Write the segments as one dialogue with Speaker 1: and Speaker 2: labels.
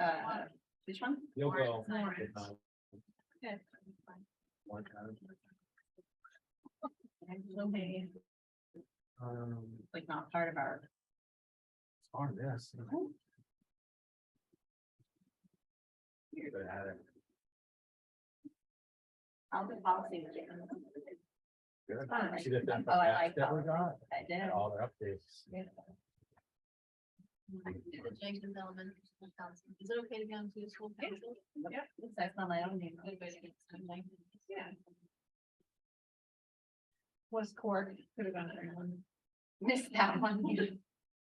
Speaker 1: Uh, which one?
Speaker 2: You'll go.
Speaker 1: Lawrence.
Speaker 2: Uh,
Speaker 1: Okay.
Speaker 2: one time.
Speaker 1: Okay,
Speaker 2: Um,
Speaker 1: Like not part of our.
Speaker 2: it's on this.
Speaker 1: Weird.
Speaker 2: But I had it.
Speaker 1: I'll do policy.
Speaker 2: Good.
Speaker 1: Fine.
Speaker 2: She did that.
Speaker 1: Oh, I like
Speaker 2: That we got,
Speaker 1: I did.
Speaker 2: and all their updates.
Speaker 3: The Jenkins Elementary School Council. Is it okay to be on to the school council?
Speaker 1: Yep, that's not my own name.
Speaker 3: Everybody gets to like-
Speaker 1: Yeah. Was Cork, could have gone to anyone. Missed that one.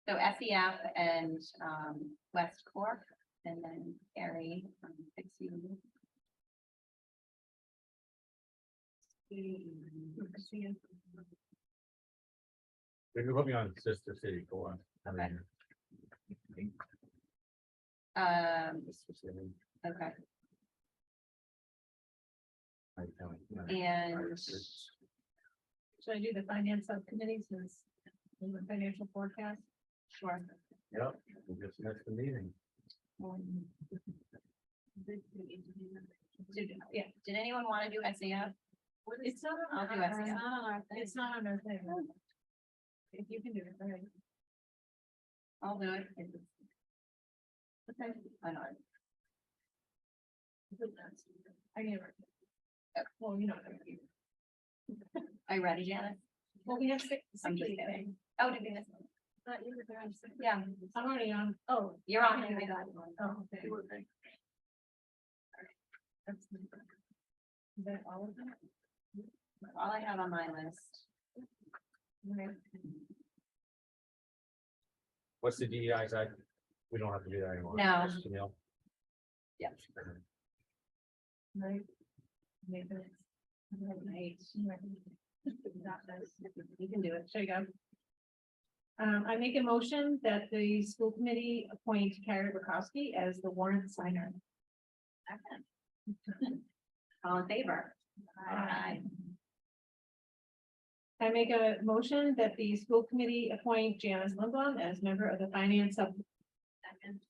Speaker 1: So SEF and um West Cork and then Gary from Fix You.
Speaker 2: They could put me on Sister City for one. I
Speaker 1: Okay.
Speaker 2: mean,
Speaker 1: Um,
Speaker 2: Sister City,
Speaker 1: okay,
Speaker 2: I tell you, yeah.
Speaker 1: and
Speaker 3: Should I do the finance subcommittee since in the financial forecast?
Speaker 1: sure.
Speaker 2: Yep, we just missed the meeting.
Speaker 1: um, Did, yeah, did anyone want to do SEF?
Speaker 3: It's not
Speaker 1: I'll
Speaker 3: on
Speaker 1: do
Speaker 3: our, it's
Speaker 1: SEO.
Speaker 3: not on our, thing. it's not on our thing. If you can do it, all right.
Speaker 1: I'll do it. Okay. I know.
Speaker 3: I never. Well, you know. what I mean.
Speaker 1: Are you ready, Janice?
Speaker 3: Well, we have six.
Speaker 1: I'm just kidding. Oh, did we miss? one?
Speaker 3: Not you, but I'm six.
Speaker 1: Yeah,
Speaker 3: I'm already on, oh.
Speaker 1: you're on.
Speaker 3: I got it. Oh, okay. That's- Is that all of them?
Speaker 1: All I have on my list.
Speaker 2: What's the DEI side? We don't have to do that anymore.
Speaker 1: No.
Speaker 2: Just Janelle.
Speaker 1: Yep.
Speaker 3: Right. Maybe it's- I don't know, eight, maybe. Not this.
Speaker 1: You can do it.
Speaker 3: There you go. Um, I make a motion that the school committee appoint Carrie Bukowski as the warrant signer.
Speaker 1: Second. All in favor?
Speaker 3: Aye. I make a motion that the school committee appoint Janice Lindblom as member of the finance sub.
Speaker 1: Second.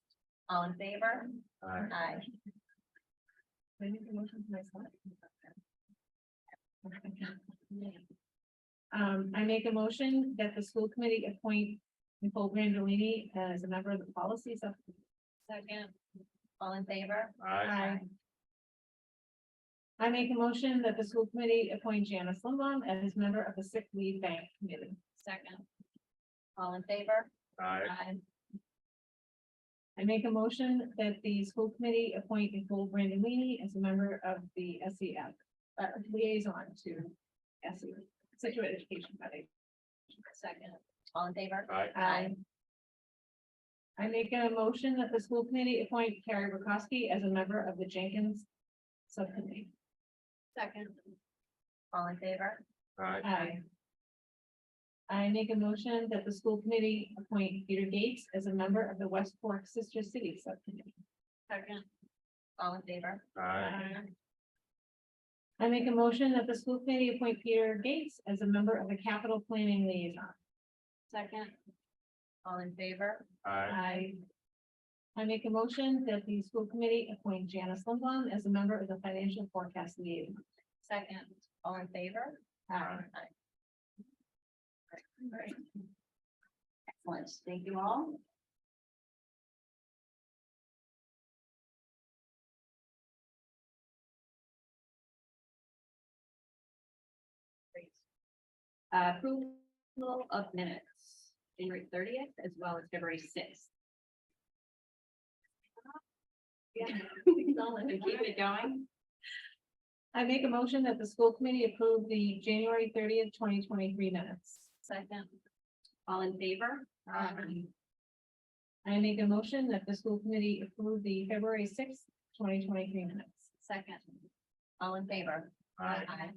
Speaker 1: All in favor?
Speaker 2: Alright,
Speaker 1: Aye.
Speaker 3: I make a motion for myself. Um, I make a motion that the school committee appoint Nicole Brandolini as a member of the policy sub.
Speaker 1: Second. All in favor?
Speaker 2: alright,
Speaker 3: Aye. I make a motion that the school committee appoint Janice Lindblom as member of the sick leave bank committee.
Speaker 1: Second. All in favor?
Speaker 2: alright,
Speaker 1: Aye.
Speaker 3: I make a motion that the school committee appoint Nicole Brandolini as a member of the SEF, uh, liaison to SEF, Situate Education Body.
Speaker 1: Second. All in favor?
Speaker 2: alright,
Speaker 1: Aye.
Speaker 3: I make a motion that the school committee appoint Carrie Bukowski as a member of the Jenkins Subcommittee.
Speaker 1: Second. All in favor?
Speaker 2: alright,
Speaker 3: Aye. I make a motion that the school committee appoint Peter Gates as a member of the West Fork Sister City Subcommittee.
Speaker 1: Second. All in favor?
Speaker 2: alright,
Speaker 3: I make a motion that the school committee appoint Peter Gates as a member of the capital planning liaison.
Speaker 1: Second. All in favor?
Speaker 2: alright,
Speaker 3: I. I make a motion that the school committee appoint Janice Lindblom as a member of the financial forecast liaison.
Speaker 1: Second. All in favor?
Speaker 2: Aye.
Speaker 1: Great. Excellent, thank you all. Great. Uh, Approval of minutes, January thirtieth as well as February sixth. Yeah, we keep it going.
Speaker 3: I make a motion that the school committee approve the January thirtieth, twenty twenty-three minutes.
Speaker 1: Second. All in favor?
Speaker 3: Aye. I make a motion that the school committee approve the February sixth, twenty twenty-three minutes.
Speaker 1: Second. All in favor?
Speaker 2: alright,
Speaker 1: Aye.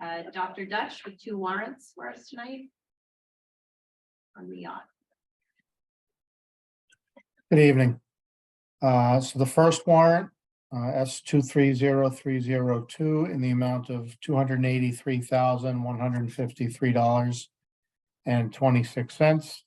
Speaker 1: Uh, Dr. Dutch with two warrants for us tonight. On the uh, yacht.
Speaker 4: Good evening. Uh, So the first warrant, uh, S two three zero three zero two, in the amount of two hundred and eighty-three thousand, one hundred and fifty-three dollars and twenty-six cents.